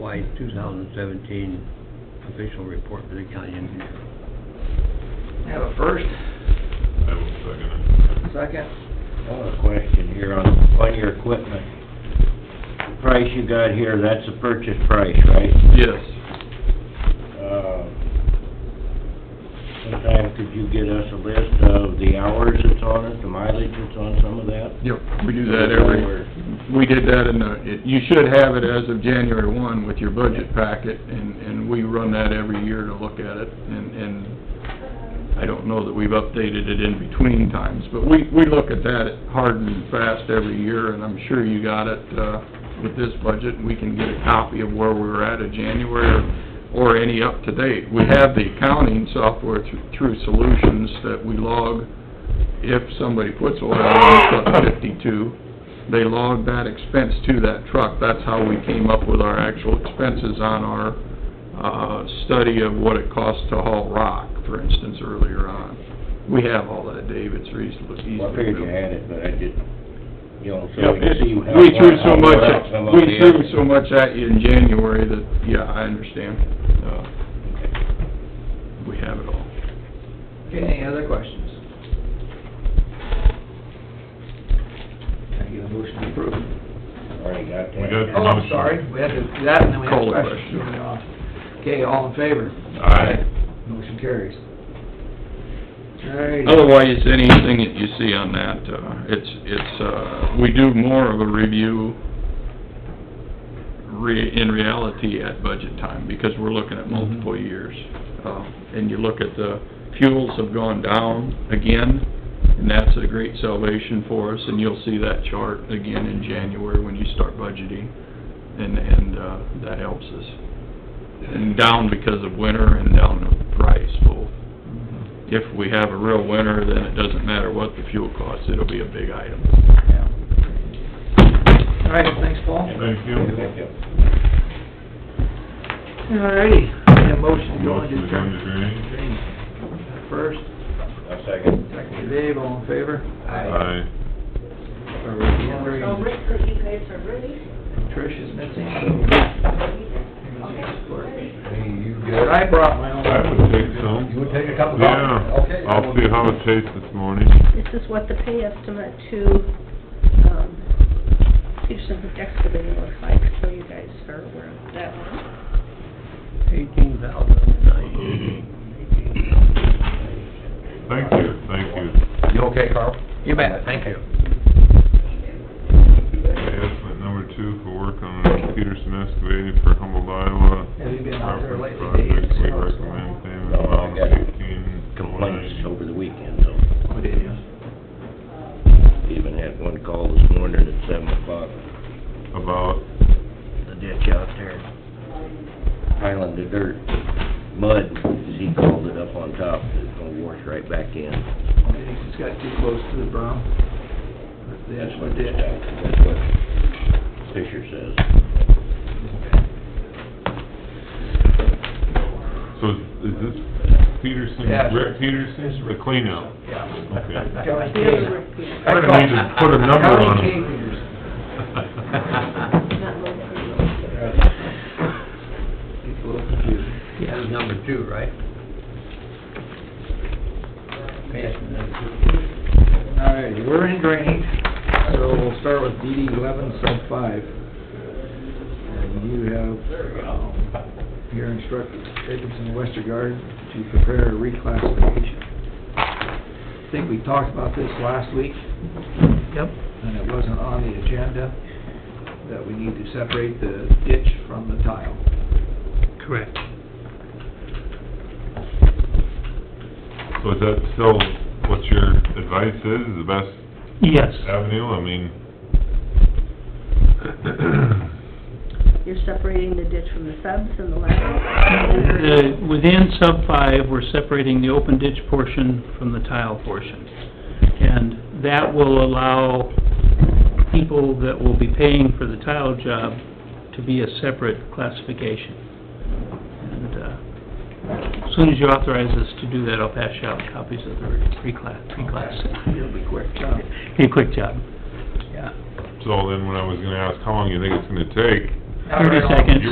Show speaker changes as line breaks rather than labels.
FY 2017 official report for the county engineer.
Have a first,
I will second
second,
I have a question here on, on your equipment. The price you got here, that's the purchase price, right?
it. Yes.
Uh, Sometime could you get us a list of the hours it's on it, the mileage it's on some of that?
Yep, we do that every, we did that in the, it- you should have it as of January one with your budget packet, and, and we run that every year to look at it, and, and I don't know that we've updated it in between times, but we, we look at that hard and fast every year, and I'm sure you got it, uh, with this budget, and we can get a copy of where we were at in January, or any up to date. We have the accounting software thr- through Solutions that we log, if somebody puts oil on truck fifty-two, they log that expense to that truck. That's how we came up with our actual expenses on our, uh, study of what it costs to haul rock, for instance, earlier on. We have all that, Dave, it's reasonably easy to do.
Well, I figured you had it, but I didn't, you know,
Yeah,
so we can see how...
We threw so
how
much,
well some of
we
the
threw
others-
so much at you in January that, yeah, I understand. Uh, We have it all.
okay, any other questions? Can I get a motion to approve?
Already got that.
We got-
Oh, I'm sorry, we had to do that, and then we had
Call the
questions.
question.
Okay, all in favor?
Aye.
Motion carries. All right,
Otherwise, anything that you see on that, uh, it's, it's, uh, we do more of a review re, in reality at budget time, because we're looking at multiple years. Uh, and you look at the fuels have gone down again, and that's a great salvation for us, and you'll see that chart again in January when you start budgeting, and, and, uh, that helps us. And down because of winter and down the price both if we have a real winter, then it doesn't matter what the fuel costs, it'll be a big item.
all right, thanks, Paul.
Thank
Thank you.
All righty, need a motion to go into
Motion to go into
drainage. First,
I'll second.
second, Dave, all in favor? Or we're
So
wondering,
Rick, that you guys are really,
Trish is missing,
okay.
so. I brought my own.
I would take some.
would take a couple
Yeah, I'll see how it tastes this morning.
This is what the pay estimate to, um, Peterson excavating looks like, so you guys are aware of that one.
Eighteen thousand nine.
Thank you, thank you.
You okay, Carl?
You bet, thank you.
Estimate number two for work on Peterson excavating for Humboldt, Iowa.
Have you been out there lately,
Property
Dave?
project, We recommend payment
No, I
amount
got
of eighteen.
Complaints over the weekend, so...
Oh, did you?
Even had one call this morning at seven o'clock,
About,
the ditch out there, piling the dirt, mud, as he called it up on top, it's gonna wash right back in.
I think it's got too close to the berm. The edge
That's
of
what
the
this,
ditch.
that's what Fisher says.
so is this Peterson,
Yeah.
Rick Peterson, the cleanout?
Yeah.
Okay.
Kelly
The other
Kay.
Rick Peterson,
I don't need to put a number on
Kelly
it.
Kay Peterson.
not local.
Gets a little confusing.
That was number two, right?
All righty, we're in drainage, so we'll start with DD eleven sub five. And you have, um, you're instructed, Jacobson Westergaard, to prepare a reclassification. I think we talked about this last week. Yep. And it wasn't on the agenda, that we need to separate the ditch from the tile.
Correct.
So is that still what your advice is, the best
Yes,
avenue? I mean,
You're separating the ditch from the subs and the laterals.
The- within sub five, we're separating the open ditch portion from the tile portion. And that will allow people that will be paying for the tile job to be a separate classification. And, uh, as soon as you authorize us to do that, I'll pass you out copies of the reclass, reclass.
It'll be quick, huh?
Be a quick job, yeah.
so then when I was gonna ask how long you think it's gonna take,
Not very
Thirty
long.
seconds.